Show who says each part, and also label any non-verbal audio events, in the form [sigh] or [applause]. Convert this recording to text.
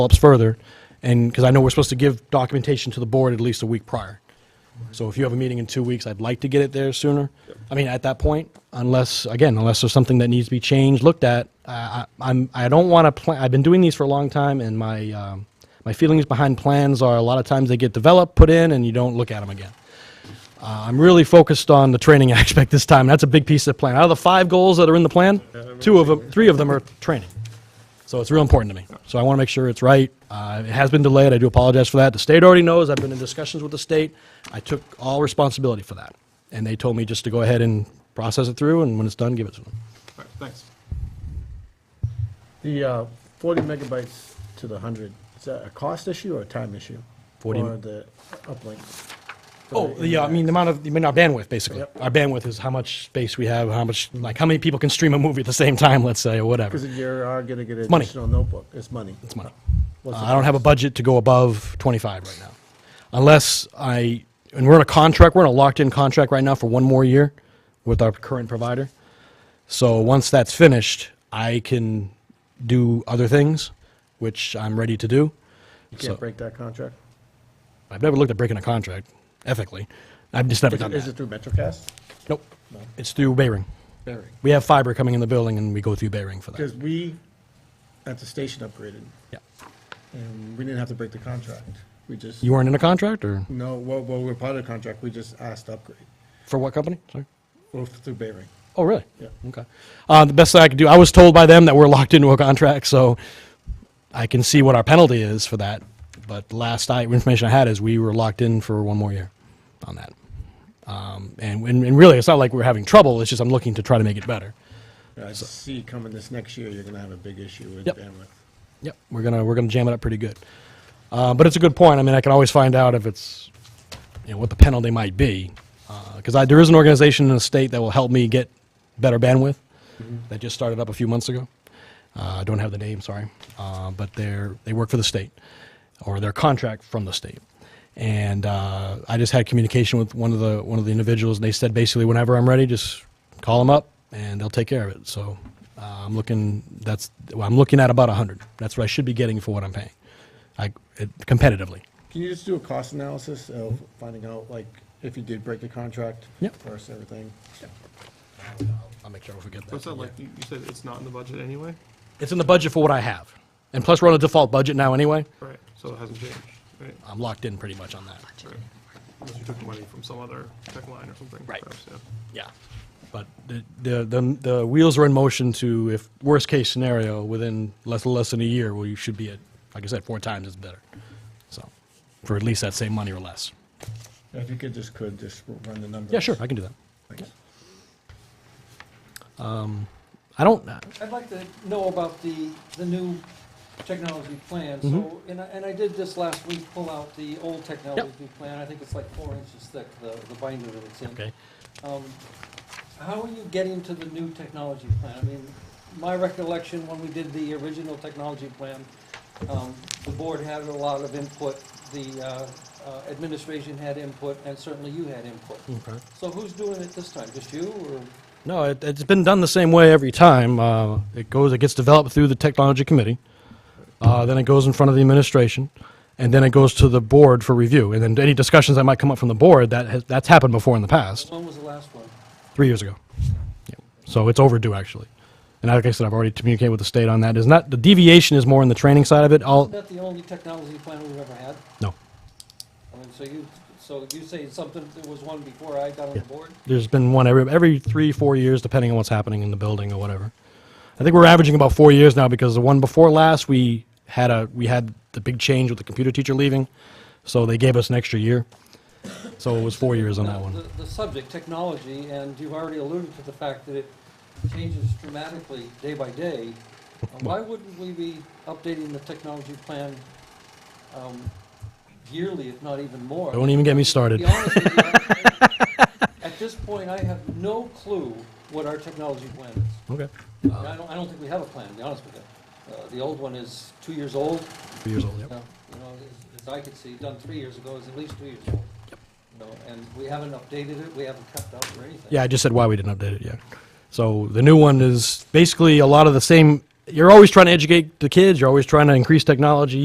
Speaker 1: develops further, and, because I know we're supposed to give documentation to the board at least a week prior. So if you have a meeting in two weeks, I'd like to get it there sooner. I mean, at that point, unless, again, unless there's something that needs to be changed, looked at, I, I- I'm, I don't want to plan, I've been doing these for a long time, and my, um, my feelings behind plans are, a lot of times they get developed, put in, and you don't look at them again. Uh, I'm really focused on the training [laughs] aspect this time. That's a big piece of the plan. Out of the five goals that are in the plan, two of them, three of them are training. So it's real important to me. So I want to make sure it's right. Uh, It has been delayed. I do apologize for that. The state already knows. I've been in discussions with the state. I took all responsibility for that. And they told me just to go ahead and process it through, and when it's done, give it to them.
Speaker 2: All right, thanks.
Speaker 3: The uh, 40 megabytes to the 100, is that a cost issue or a time issue?
Speaker 1: 40
Speaker 3: Or the uplink?
Speaker 1: Oh, the, uh, I mean, the amount of, I mean, our bandwidth, basically.
Speaker 3: Yep.
Speaker 1: Our bandwidth is how much space we have, how much, like, how many people can stream a movie at the same time, let's say, or whatever.
Speaker 3: Because you are going to get an
Speaker 1: money.
Speaker 3: additional notebook, it's money.
Speaker 1: It's money.
Speaker 3: What's
Speaker 1: Uh,
Speaker 3: the
Speaker 1: I don't have a
Speaker 3: cost?
Speaker 1: budget to go above 25 right now, unless I, and we're in a contract, we're in a locked-in contract right now for one more year with our current provider. So once that's finished, I can do other things, which I'm ready to do.
Speaker 3: You
Speaker 1: so-
Speaker 3: can't break that contract?
Speaker 1: I've never looked at breaking a contract ethically. I've just never
Speaker 3: Is
Speaker 1: done
Speaker 3: it- is it
Speaker 1: that.
Speaker 3: through MetroCast?
Speaker 1: Nope. It's through Bayring. We have fiber coming in the building, and we go through Bayring for that.
Speaker 3: Because we, at the station upgraded,
Speaker 1: Yeah.
Speaker 3: and we didn't have to break the contract. We just,
Speaker 1: You weren't in a contract, or
Speaker 3: no, well, well, we're part of the contract, we just asked to upgrade,
Speaker 1: for what company? Sorry.
Speaker 3: Well, through Bering.
Speaker 1: Oh, really?
Speaker 3: Yeah.
Speaker 1: Okay. Uh, the best I could do, I was told by them that we're locked into a contract, so I can see what our penalty is for that. But the last I, information I had is we were locked in for one more year on that. Um, and, and, and really, it's not like we're having trouble. It's just I'm looking to try to make it better.
Speaker 3: I see coming this next year, you're going to have a big issue with
Speaker 1: Yep.
Speaker 3: bandwidth.
Speaker 1: Yep, we're gonna we're gonna jam it up pretty good. Uh, but it's a good point. I mean, I can always find out if it's you know what the penalty might be because I there is an organization in the state that will help me get better bandwidth that just started up a few months ago. Uh, I don't have the name, sorry, uh, but they're they work for the state or their contract from the state. And uh, I just had communication with one of the one of the individuals, and they said basically whenever I'm ready, just call them up and they'll take care of it. So uh, I'm looking that's well, I'm looking at about 100. That's what I should be getting for what I'm paying, I, it, competitively.
Speaker 3: Can you just do a cost analysis of finding out, like, if you did break the contract?
Speaker 1: Yep.
Speaker 3: First, everything?
Speaker 1: I'll make sure I don't forget that.
Speaker 2: What's that like? You you said it's not in the budget anyway?
Speaker 1: It's in the budget for what I have, and plus we're on a default budget now anyway.
Speaker 2: Right, so it hasn't changed, right?
Speaker 1: I'm locked in pretty much on that.
Speaker 2: Right. Unless you took money from some other tech line or something.
Speaker 1: Right.
Speaker 2: perhaps, yeah.
Speaker 1: Yeah. But the, the, the, the wheels are in motion to, if worst case scenario, within less, less than a year, well, you should be at, like I said, four times is better. So, for at least that same money or less.
Speaker 3: If you could, just could, just run the numbers.
Speaker 1: Yeah, sure, I can do that.
Speaker 3: Thanks.
Speaker 1: I don't, uh,
Speaker 4: I'd like to know about the, the new technology plan, so, and I, and I did this last week, pull out the old technology plan, I think it's like four inches thick, the, the binder that it's in.
Speaker 1: okay.
Speaker 4: Um, How are you getting to the new technology plan? I mean, my recollection, when we did the original technology plan, um, the board had a lot of input, the uh, uh, administration had input, and certainly you had input.
Speaker 1: Okay.
Speaker 4: So who's doing it this time, just you, or?
Speaker 1: No, it, it's been done the same way every time. Uh, it goes, it gets developed through the technology committee, uh, then it goes in front of the administration, and then it goes to the board for review. And then any discussions that might come up from the board, that has, that's happened before in the past.
Speaker 4: When was the last one?
Speaker 1: three years ago. Yeah. So it's overdue, actually. And like I said, I've already communicated with the state on that. Is not the deviation is more in the training side of it. All
Speaker 4: Isn't that the only technology plan we've ever had?
Speaker 1: no,
Speaker 4: I mean, so you, so you say something, there was one before I got on the board?
Speaker 1: there's been one every every three four years, depending on what's happening in the building or whatever. I think we're averaging about four years now because the one before last we had a we had the big change with the computer teacher leaving, so they gave us an extra year. So it was four years on that
Speaker 4: Now,
Speaker 1: one.
Speaker 4: Uh, the- The subject, technology, and you've already alluded to the fact that it changes dramatically day
Speaker 1: [laughs]
Speaker 4: by day. Uh, Why wouldn't we be updating the technology plan um, yearly, if not even more?
Speaker 1: Don't even get me
Speaker 4: To
Speaker 1: started.
Speaker 4: be honest with you, I- I- At this point, I have no clue what our technology plan is.
Speaker 1: Okay, Uh.
Speaker 4: And I don't, I don't think we have a plan, to be honest with you. Uh, The old one is two years old,
Speaker 1: three years old. Yep.
Speaker 4: Yeah, you know, as- as I could see, done three years ago, is at least two years old. You know, and we haven't updated it, we haven't kept up or anything.
Speaker 1: Yeah, I just said why we didn't update it yet. So the new one is basically a lot of the same. You're always trying to educate the kids. You're always trying to increase technology.